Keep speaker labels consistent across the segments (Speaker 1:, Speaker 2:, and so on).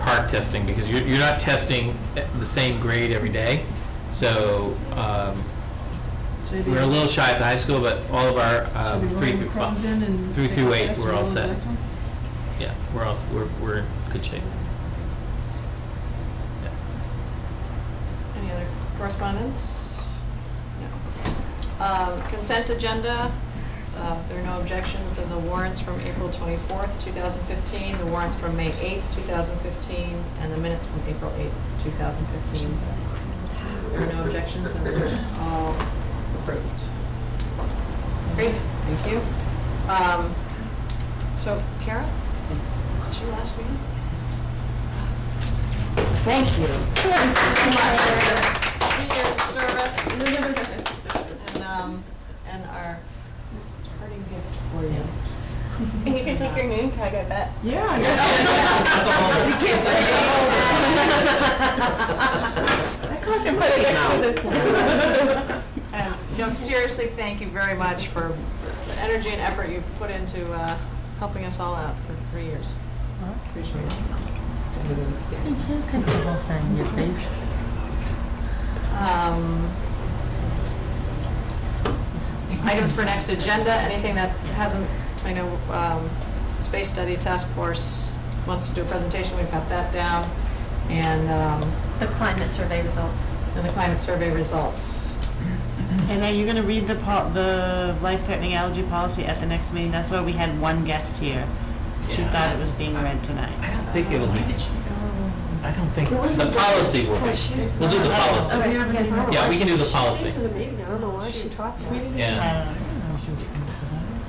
Speaker 1: park testing, because you're, you're not testing the same grade every day. So, um,
Speaker 2: So maybe-
Speaker 1: we're a little shy at the high school, but all of our,
Speaker 2: should we
Speaker 1: um,
Speaker 2: roll
Speaker 1: three
Speaker 2: the
Speaker 1: through
Speaker 2: crumbs in and
Speaker 1: five, three
Speaker 2: take
Speaker 1: through
Speaker 2: the
Speaker 1: eight,
Speaker 2: rest
Speaker 1: we're
Speaker 2: and
Speaker 1: all
Speaker 2: roll the
Speaker 1: set.
Speaker 2: next one?
Speaker 1: Yeah, we're all, we're, we're in good shape. Yeah.
Speaker 3: Any other correspondence? No. Um, Consent agenda, uh, if there are no objections, then the warrants from April 24th, 2015, the warrants from May 8th, 2015, and the minutes from April 8th, 2015. If there are no objections, then they're all approved. Great, thank you. Um, So, Kara? Yes. Was your last meeting?
Speaker 4: Thank you.
Speaker 3: so much for your service and, um, and our parting gift for you.
Speaker 5: And you can take your name tag, I bet.
Speaker 2: Yeah.
Speaker 3: Yeah.
Speaker 2: yeah.
Speaker 3: You can't take it
Speaker 2: home.
Speaker 5: That costs money. Put
Speaker 3: And, no, seriously, thank you very much for the energy and effort you put into, uh, helping us all out for three years. Appreciate it. Um, Items for next agenda, anything that hasn't, I know, um, Space Study Task Force wants to do a presentation, we've got that down. And, um,
Speaker 5: The climate survey results.
Speaker 3: and the climate survey results.
Speaker 6: And are you going to read the pol- the life-threatening allergy policy at the next meeting? That's why we had one guest here. She
Speaker 1: Yeah.
Speaker 6: thought it was being read
Speaker 1: I
Speaker 6: tonight.
Speaker 1: don't think it'll be, I don't think, the policy will be, we'll do the policy.
Speaker 5: Oh, Okay.
Speaker 1: Yeah, we can do the
Speaker 5: Came to
Speaker 1: policy,
Speaker 5: the meeting, I don't know why she taught that.
Speaker 1: yeah.
Speaker 6: Um,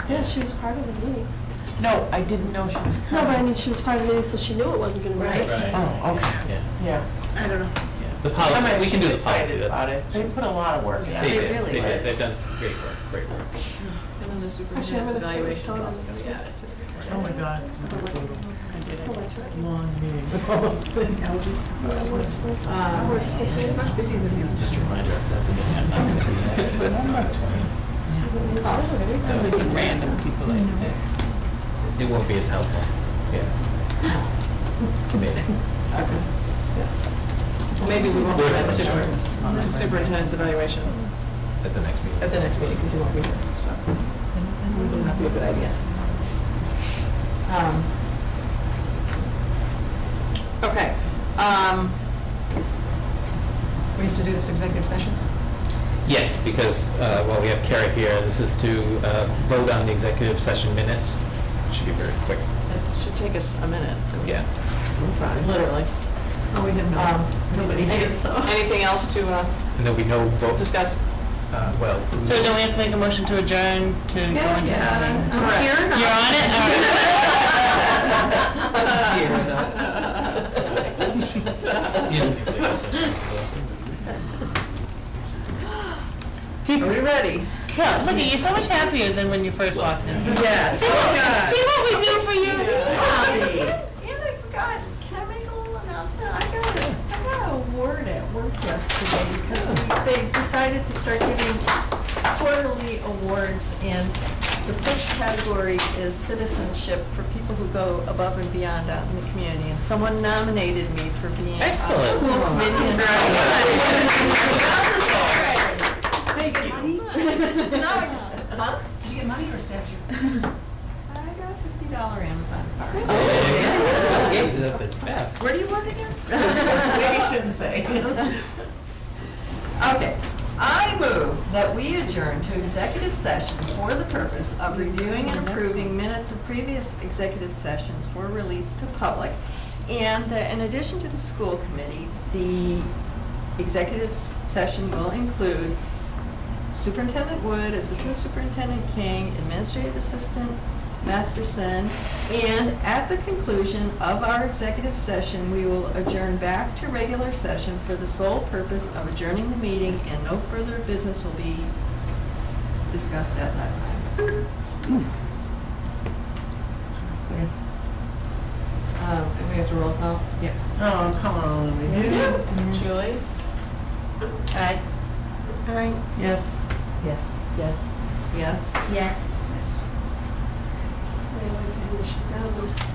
Speaker 5: Yeah, she was part of the meeting.
Speaker 7: No, I didn't know she was
Speaker 5: No,
Speaker 7: coming.
Speaker 5: but I mean, she was part of the meeting, so she knew it wasn't gonna
Speaker 1: Right,
Speaker 5: be.
Speaker 1: yeah.
Speaker 7: Oh, okay, yeah.
Speaker 5: I don't know.
Speaker 1: The
Speaker 7: I
Speaker 1: policy,
Speaker 7: mean,
Speaker 1: Oh, we can
Speaker 7: she's
Speaker 1: do the policy,
Speaker 7: excited about
Speaker 1: that's.
Speaker 7: it. They put a lot of work in.
Speaker 1: They
Speaker 7: it.
Speaker 1: did,
Speaker 3: really
Speaker 1: they
Speaker 3: did.
Speaker 1: did, they've done some great work, great work.
Speaker 3: And then the
Speaker 5: Actually, I'm
Speaker 3: superintendent's
Speaker 5: gonna say we've
Speaker 3: evaluation is
Speaker 5: told
Speaker 3: also
Speaker 5: them this
Speaker 3: going
Speaker 5: week.
Speaker 7: Oh, my God. it's gonna be brutal. I did
Speaker 5: Oh, that's right. Oh,
Speaker 7: a long meeting with all those things.
Speaker 5: Yeah, Wordsmith.
Speaker 3: Um,
Speaker 5: Wordsmith. She's oh, much busier than you.
Speaker 1: Just a reminder, that's an agenda.
Speaker 7: Random people like that.
Speaker 1: It won't be as helpful, yeah. Maybe.
Speaker 3: Well, Maybe we won't do that
Speaker 1: Good.
Speaker 3: super- that superintendent's evaluation
Speaker 1: At the next meeting.
Speaker 3: at the next meeting, because you won't be here, so. Wouldn't that be a good idea? Um, Okay. um, We have to do this executive session?
Speaker 1: Yes, because, uh, well, we have Kara here, this is to uh, vote on the executive session minutes. Should be very quick,
Speaker 3: It should take us a minute,
Speaker 1: yeah.
Speaker 3: literally.
Speaker 2: Oh, we have
Speaker 3: Um,
Speaker 2: nobody here, so.
Speaker 3: Anything else to uh,
Speaker 1: And there'll be no vote,
Speaker 3: discuss?
Speaker 1: uh, well.
Speaker 6: So don't we have to make a motion to adjourn to go into?
Speaker 2: Yeah,
Speaker 6: non-meeting?
Speaker 2: I'm here.
Speaker 6: You're on it? All
Speaker 2: Are we ready?
Speaker 6: right. Look, look at you, so much happier than when you first walked in.
Speaker 1: Oh
Speaker 2: Yes.
Speaker 6: See what, see what we do for you?
Speaker 5: And I forgot, can I make a little announcement? I got, a I got an award at work yesterday because we- they decided to start giving quarterly awards and the first category is citizenship for people who go above and beyond out in the community. And someone nominated me for being a school
Speaker 1: Excellent.
Speaker 5: committee. Huh?
Speaker 2: Did you get money or a statue?
Speaker 5: I got a fifty dollar Amazon card.
Speaker 1: Where do you?
Speaker 2: Maybe you shouldn't say. Okay, I move that we adjourn to executive session for the purpose of Uh, reviewing and approving minutes of previous executive sessions for release to public. And that in addition to the school committee, the executive s- session will include Superintendent Wood, Assistant Superintendent King, Administrative Assistant Masterson, and at the conclusion of our executive session, we will adjourn back to regular session for the sole purpose of adjourning the meeting, and no further business will be discussed at that time.
Speaker 3: Um, And we have to roll call? Yeah.
Speaker 7: Oh, come on, we did.
Speaker 3: Julie?
Speaker 6: Aye. Yes.
Speaker 3: Yes. Yes. Yes.
Speaker 4: Yes.
Speaker 3: Yes.
Speaker 5: Anyway, I should down.